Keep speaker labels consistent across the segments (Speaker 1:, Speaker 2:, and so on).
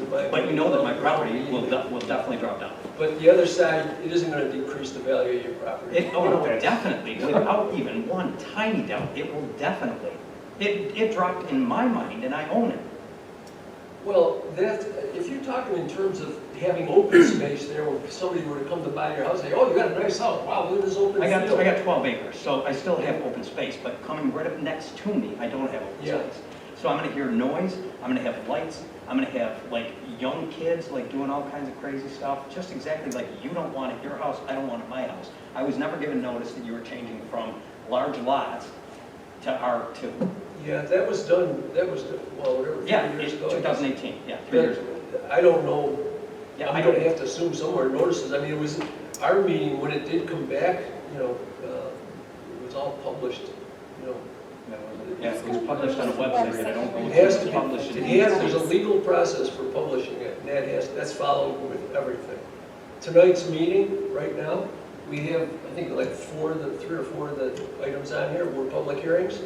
Speaker 1: you know that my property will, de- will definitely drop down.
Speaker 2: But the other side, it isn't gonna decrease the value of your property.
Speaker 1: It, oh, no, it definitely, without even one tiny doubt, it will definitely. It, it dropped in my mind and I own it.
Speaker 2: Well, that's, if you're talking in terms of having open space there, where somebody were to come to buy your house, say, oh, you got a nice house, wow, look at this open
Speaker 1: I
Speaker 2: field.
Speaker 1: got, I got 12 acres, so I still have open space, but coming right up next to me, I don't have open
Speaker 2: Yeah.
Speaker 1: space. So I'm gonna hear noise, I'm gonna have lights, I'm gonna have like young kids like doing all kinds of crazy stuff, just exactly like you don't want at your house, I don't want at my house. I was never given notice that you were changing from large lots to R2.
Speaker 2: Yeah, that was done, that was, done, well, whatever, three
Speaker 1: Yeah,
Speaker 2: years
Speaker 1: it's
Speaker 2: ago.
Speaker 1: 2018, yeah, three years ago.
Speaker 2: But I don't know,
Speaker 1: Yeah,
Speaker 2: I'm
Speaker 1: I
Speaker 2: gonna
Speaker 1: don't,
Speaker 2: have to assume somewhere notices, I mean, it was, our meeting, when it did come back, you know, uh, it was all published, you know,
Speaker 1: yeah, it was published on a website that I don't
Speaker 2: It
Speaker 1: know
Speaker 2: has
Speaker 1: if
Speaker 2: to
Speaker 1: it's
Speaker 2: be,
Speaker 1: published. in.
Speaker 2: it has, there's a legal process for publishing it, and that has, that's followed with everything. Tonight's meeting, right now, we have, I think, like four, of the, three or four of the items on here were public hearings,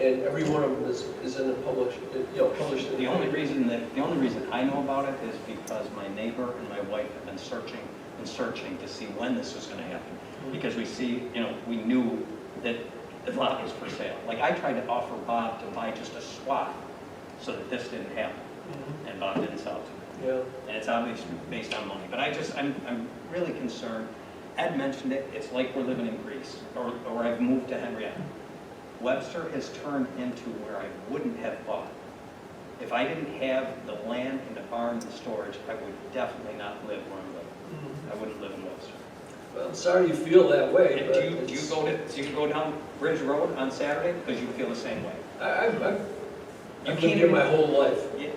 Speaker 2: and every one of them is, is in the publish, you know, published. in-
Speaker 1: The only reason that, the only reason I know about it is because my neighbor and my wife have been searching and searching to see when this was gonna happen.
Speaker 2: Mm-hmm.
Speaker 1: Because we see, you know, we knew that the lot was for sale. Like, I tried to offer Bob to buy just a swath so that this didn't happen,
Speaker 2: Mhm.
Speaker 1: and Bob didn't sell to me.
Speaker 2: Yeah,
Speaker 1: And it's obviously based on money, but I just, I'm, I'm really concerned. Ed mentioned it, it's like we're living in Greece, or, or I've moved to Henrietta. Webster has turned into where I wouldn't have bought. If I didn't have the land and the farm and the storage, I would definitely not live where I'm living. I wouldn't live in Webster.
Speaker 2: Mm-hmm. well, I'm sorry you feel that way,
Speaker 1: And
Speaker 2: but.
Speaker 1: do you, do you
Speaker 2: it's-
Speaker 1: go to, do you go down Bridge Road on Saturday? Because you feel the same way.
Speaker 2: I, I've, I've,
Speaker 1: You
Speaker 2: I've
Speaker 1: can't
Speaker 2: been here my
Speaker 1: even-
Speaker 2: whole life.
Speaker 1: Yeah,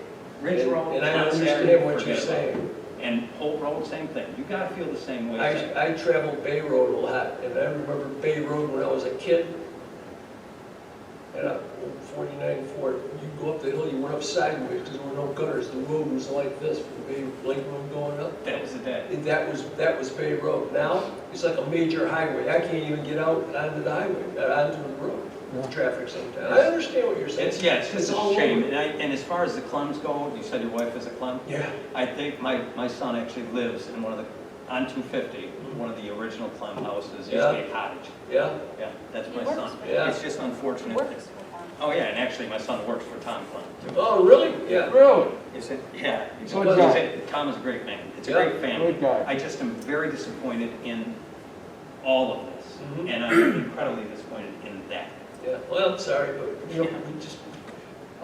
Speaker 1: Ridge
Speaker 2: and-
Speaker 1: Road
Speaker 2: And I
Speaker 1: on Saturday,
Speaker 2: understand what you're
Speaker 1: forget about it.
Speaker 2: saying.
Speaker 1: And Holt Road, same thing. You gotta feel the same way.
Speaker 2: I, I traveled Bay Road a lot, and I remember Bay Road when I was a kid. And a 49 Ford, you go up the hill, you went up sideways, because there were no gutters, the road was like this, from Bay, Lake Road going up.
Speaker 1: That was the day.
Speaker 2: And that was, that was Bay Road. Now, it's like a major highway, I can't even get out onto the highway, uh, onto the road, with traffic sometimes. I understand what you're saying.
Speaker 1: It's, yeah, it's
Speaker 2: It's
Speaker 1: just a
Speaker 2: all
Speaker 1: shame.
Speaker 2: over.
Speaker 1: And I, and as far as the Clems go, you said your wife is a Clem?
Speaker 2: Yeah,
Speaker 1: I think my, my son actually lives in one of the, on two fifty, one of the original Clem houses, used to be a cottage.
Speaker 2: yeah,
Speaker 1: Yeah, that's
Speaker 3: He
Speaker 1: my
Speaker 3: works
Speaker 1: son.
Speaker 3: with
Speaker 2: Yeah.
Speaker 1: It's just unfortunate.
Speaker 3: Works with them.
Speaker 1: Oh, yeah, and actually, my son works for Tom Clem.
Speaker 2: oh, really? Yeah.
Speaker 4: Really?
Speaker 1: Is it? Yeah. he's-
Speaker 4: Good
Speaker 1: he's
Speaker 4: guy.
Speaker 1: a- Tom is a great man. It's a
Speaker 2: Yeah,
Speaker 1: great family.
Speaker 4: good guy.
Speaker 1: I just am very disappointed in all of this,
Speaker 2: Mhm.
Speaker 1: and I'm incredibly disappointed in that.
Speaker 2: Yeah, well, I'm sorry, but, you know, we just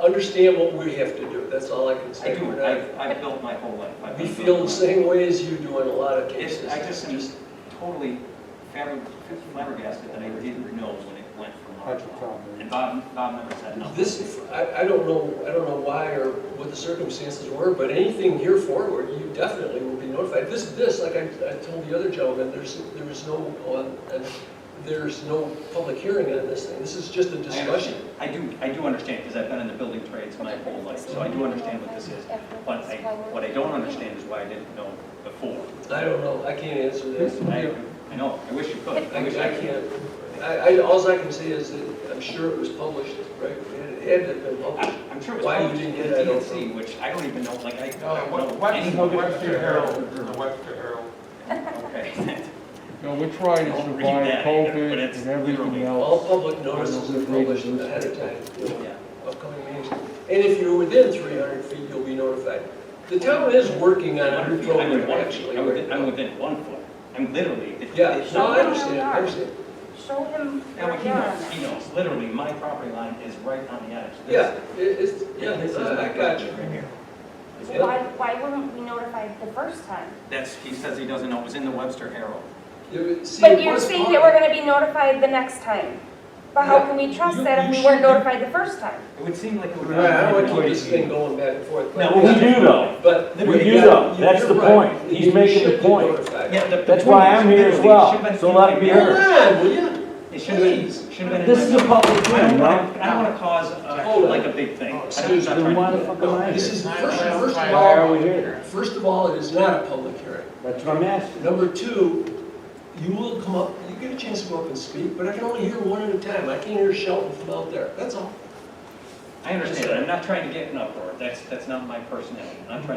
Speaker 2: understand what we have to do, that's all I can
Speaker 1: I
Speaker 2: say.
Speaker 1: do,
Speaker 2: We're not-
Speaker 1: I've, I've built my whole life. I've
Speaker 2: We
Speaker 1: been
Speaker 2: feel
Speaker 1: built-
Speaker 2: the same way as you do in a lot of
Speaker 1: It's,
Speaker 2: cases.
Speaker 1: I just am totally flabber- flabbergasted that I didn't know when it went from large
Speaker 4: That's a
Speaker 1: lot.
Speaker 4: problem.
Speaker 1: And Bob, Bob never said no.
Speaker 2: This, I, I don't know, I don't know why or what the circumstances were, but anything here forward, you definitely will be notified. This, this, like I, I told the other gentleman, there's, there is no, uh, and there's no public hearing on this thing, this is just a
Speaker 1: I understand.
Speaker 2: discussion.
Speaker 1: I do, I do understand, because I've been in the building trades my whole life, so I do understand what this is. But I, what I don't understand is why I didn't know before.
Speaker 2: I don't know, I can't answer this.
Speaker 1: I, I know, I wish you could.
Speaker 2: I,
Speaker 1: wish
Speaker 2: I
Speaker 1: could.
Speaker 2: can't, I, I, alls I can say is that I'm sure it was published, right? It had to have been published.
Speaker 1: I'm sure it was
Speaker 2: Why you
Speaker 1: published in
Speaker 2: didn't
Speaker 1: the
Speaker 2: get it, I don't
Speaker 1: DNC, which I don't even know, like, I
Speaker 4: No,
Speaker 1: don't
Speaker 4: what-
Speaker 1: know
Speaker 4: what's
Speaker 1: anything.
Speaker 4: the Webster Herald, the Webster Herald?
Speaker 1: Okay.
Speaker 4: No, we tried to
Speaker 1: Don't read
Speaker 4: survive
Speaker 1: that either, but
Speaker 4: COVID
Speaker 1: it's
Speaker 4: and everything
Speaker 1: literally-
Speaker 2: All
Speaker 4: else.
Speaker 2: public notices are published ahead of time, you know,
Speaker 1: Yeah.
Speaker 2: upcoming meetings. And if you're within 300 feet, you'll be notified. The town is working on a new
Speaker 1: I'm in
Speaker 2: program,
Speaker 1: one-
Speaker 2: actually.
Speaker 1: I'm
Speaker 2: right
Speaker 1: within, I'm
Speaker 2: now.
Speaker 1: within one foot. I'm literally. it-
Speaker 2: Yeah,
Speaker 1: it's
Speaker 2: no,
Speaker 1: not-
Speaker 2: I understand, I understand.
Speaker 3: Show him
Speaker 1: Now,
Speaker 3: your
Speaker 1: he knows, he
Speaker 3: yard.
Speaker 1: knows, literally, my property line is right on the edge. This-
Speaker 2: Yeah, it- it's, yeah,
Speaker 1: Yeah, this is
Speaker 2: I
Speaker 1: my
Speaker 2: I got
Speaker 1: property
Speaker 2: you.
Speaker 1: right here.
Speaker 3: So Why, why weren't we notified the first time?
Speaker 1: That's, he says he doesn't know, it was in the Webster Herald.
Speaker 2: You- see,
Speaker 3: But
Speaker 2: it
Speaker 3: you're
Speaker 2: was
Speaker 3: saying
Speaker 2: part-
Speaker 3: that we're gonna be notified the next time. But how
Speaker 2: Yeah.
Speaker 3: can we
Speaker 1: You-
Speaker 3: trust that
Speaker 1: you
Speaker 3: if we weren't
Speaker 1: should-
Speaker 3: notified the first time?
Speaker 1: It would seem like it would.
Speaker 2: Right, I don't want to keep this thing going back and forth. but-
Speaker 1: No, we
Speaker 5: do though.
Speaker 2: But.
Speaker 5: We do know. That's the
Speaker 2: You're right.
Speaker 5: point.
Speaker 2: You-
Speaker 5: He's
Speaker 2: you
Speaker 5: making the
Speaker 2: should be
Speaker 5: point.
Speaker 2: notified.
Speaker 1: Yeah, the- the
Speaker 5: That's
Speaker 1: point
Speaker 5: why
Speaker 1: is,
Speaker 5: I'm here as
Speaker 1: literally, it
Speaker 5: well,
Speaker 1: should've been-
Speaker 5: so let it be
Speaker 2: Come
Speaker 5: heard.
Speaker 2: on, will you?
Speaker 1: It should have been, should have been. in
Speaker 5: This is
Speaker 1: my-
Speaker 5: a public
Speaker 1: I don't
Speaker 5: hearing,
Speaker 1: want
Speaker 5: right?
Speaker 1: to, I don't want to cause, uh,
Speaker 2: Hold on.
Speaker 1: like a big thing. I don't-
Speaker 2: Excuse
Speaker 1: I'm
Speaker 5: Then
Speaker 1: not
Speaker 5: why
Speaker 1: trying
Speaker 5: the
Speaker 1: to do
Speaker 5: fuck am I
Speaker 2: This
Speaker 5: here?
Speaker 2: is, first, first of
Speaker 5: Why are we
Speaker 2: all,
Speaker 5: here?
Speaker 2: first of all, it is not a public hearing.
Speaker 5: That's what I'm asking.
Speaker 2: Number two, you will come up, you get a chance to go up and speak, but I can only hear one at a time. I can't hear Shelton from out there, that's all.
Speaker 1: it. I understand, I'm not trying to get an uproar, that's, that's not my personality, I'm not trying